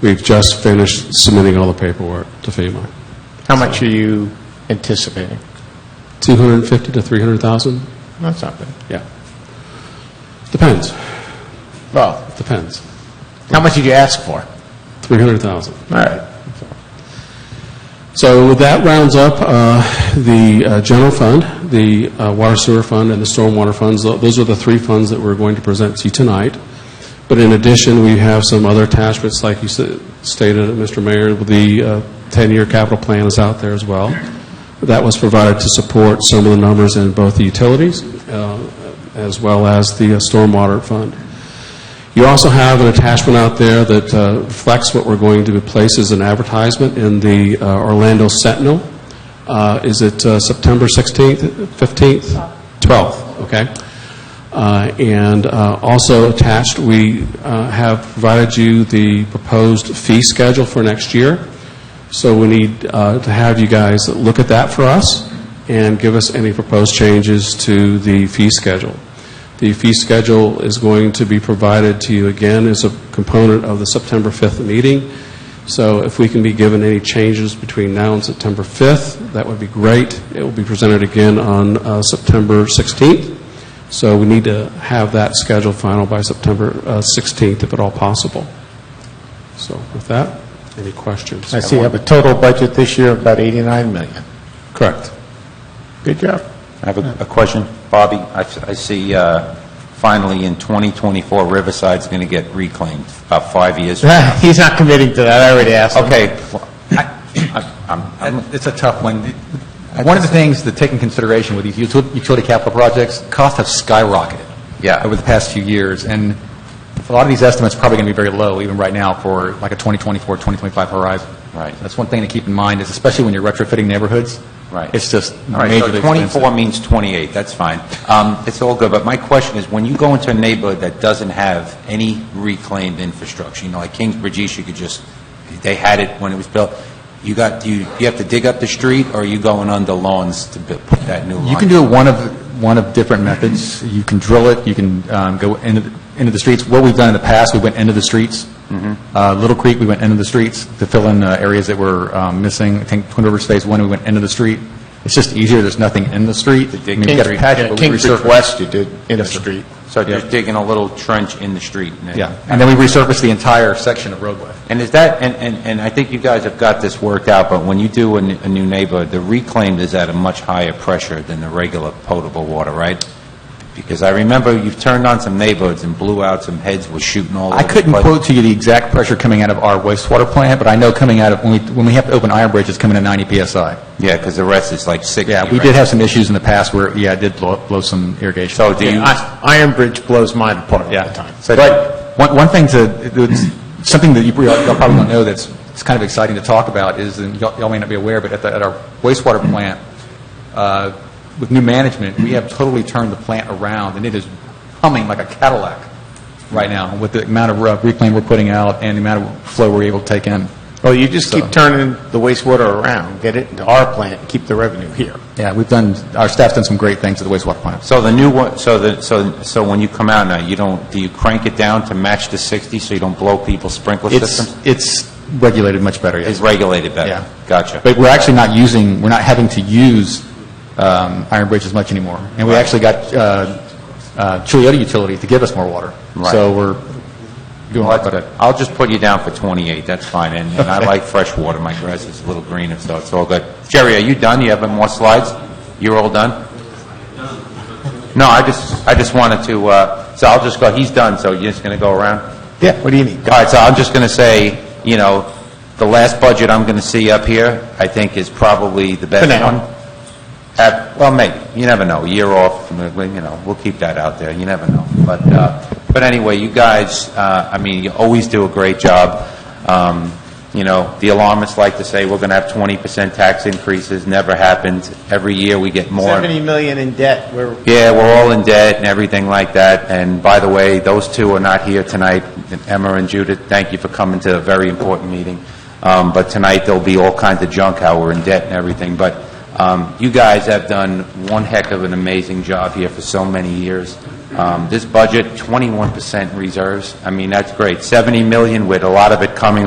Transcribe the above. We've just finished submitting all the paperwork to FEMA. How much are you anticipating? 250 to 300,000? That's not bad. Yeah. Depends, Well, depends. how much did you ask for? All 300,000. right. So that rounds up uh, the uh, general fund, the uh, water sewer fund, and the stormwater funds. Tho- Those are the three funds that we're going to present to you tonight. But in addition, we have some other attachments, like you s- stated, Mr. Mayor, the uh, 10-year capital plan is out there as well. That was provided to support some of the numbers in both the utilities uh, as well as the uh, stormwater fund. You also have an attachment out there that uh, reflects what we're going to place as an advertisement in the uh, Orlando Sentinel. Uh, Is it uh, September 16th, 15th? 12th, okay. Uh, And uh, also attached, we uh, have provided you the proposed fee schedule for next year. So we need uh, to have you guys look at that for us and give us any proposed changes to the fee schedule. The fee schedule is going to be provided to you again as a component of the September 5th meeting. So if we can be given any changes between now and September 5th, that would be great. It will be presented again on uh, September 16th. So we need to have that schedule final by September uh, 16th, if at all possible. So with that, any questions? I see you have a total budget this year of about 89 million. Correct. Good job. I have a- a question. Bobby, I f- I see uh, finally in 2024 Riverside's going to get reclaimed, about five years. from now. He's not committing to that, I already asked him. Okay. well, I- I- I'm- I'm- It's a tough one. One of the things to take in consideration with these util- utility capital projects, costs have skyrocketed. Yeah. Over the past few years, and a lot of these estimates are probably going to be very low, even right now, for like a 2024, 2025 horizon. Right. That's one thing to keep in mind, is especially when you're retrofitting neighborhoods. Right. It's just All right, majorly so expensive. 24 means 28, that's fine. Um, It's all good, but my question is, when you go into a neighborhood that doesn't have any reclaimed infrastructure, you know, like Kingsbridge East, you could just, they had it when it was built, you got, do you you have to dig up the street, or are you going under lawns to bu- put that new line? You can do it one of, one of different methods. You can drill it, you can um, go into, the- into the streets. What we've done in the past, we went into the streets. Uh, Little Creek, we went into the streets to fill in uh, areas that were um, missing. I think Twin Rivers Phase One, we went into the street. It's just easier, there's nothing in the street. I mean, we've got a patch, but we Kingsbridge resurface- West you did in the street. So Yeah. just digging a little trench in the street? and then- Yeah, and then we resurface the entire section of roadway. And is that, and, and, and I think you guys have got this worked out, but when you do a, n- a new neighborhood, the reclaimed is at a much higher pressure than the regular potable water, right? Because I remember you've turned on some neighborhoods and blew out some heads, was shooting all over. I the couldn't place. quote to you the exact pressure coming out of our wastewater plant, but I know coming out of, when we, when we have to open Iron Bridge, it's coming at 90 PSI. Yeah, because the rest is like 60, Yeah, we right? did have some issues in the past where, yeah, it did blow, blow some irrigation. So do you, Yeah, I- Iron Bridge blows mine apart all the time. Yeah. So, but one, one thing to, it's something that you pre- y'all probably don't know that's, it's kind of exciting to talk about is, and y'all y'all may not be aware, but at the, at our wastewater plant, uh, with new management, we have totally turned the plant around, and it is humming like a Cadillac right now with the amount of uh, reclaim we're putting out and the amount of flow we're able to take in. Well, you just keep So- turning the wastewater around, get it into our plant, and keep the revenue here. Yeah, we've done, our staff's done some great things at the wastewater plant. so the new one, so the, so, so when you come out now, you don't, do you crank it down to match the 60 so you don't blow people's sprinkler It's, systems? it's regulated much better, yes. It's regulated better? Yeah. Gotcha. But we're actually not using, we're not having to use um, Iron Bridge as much anymore. And we actually got uh, uh, Chuliota Utility to give us more water. Right. So we're doing a lot better. I'll just put you down for 28, that's fine, and and I like fresh water, my grass is a little greener, so it's all good. Jerry, are you done? You have more slides? You're all done? No, I just, I just wanted to, uh, so I'll just go, he's done, so you're just going to go around? Yeah, what do you need? All right, so I'm just going to say, you know, the last budget I'm going to see up here, I think is probably the best For now. one. Uh, Well, maybe, you never know, a year off, you know, we'll keep that out there, you never know. But, uh, but anyway, you guys, uh, I mean, you always do a great job. Um, You know, the alarmists like to say, we're going to have 20% tax increases, never happened. Every year, we get more. 70 million in debt, we're, Yeah, we're all in debt and everything like that. And by the way, those two are not here tonight. Emma and Judith, thank you for coming to a very important meeting. Um, But tonight, there'll be all kinds of junk, how we're in debt and everything. But um, you guys have done one heck of an amazing job here for so many years. Um, This budget, 21% reserves, I mean, that's great. 70 million with a lot of it coming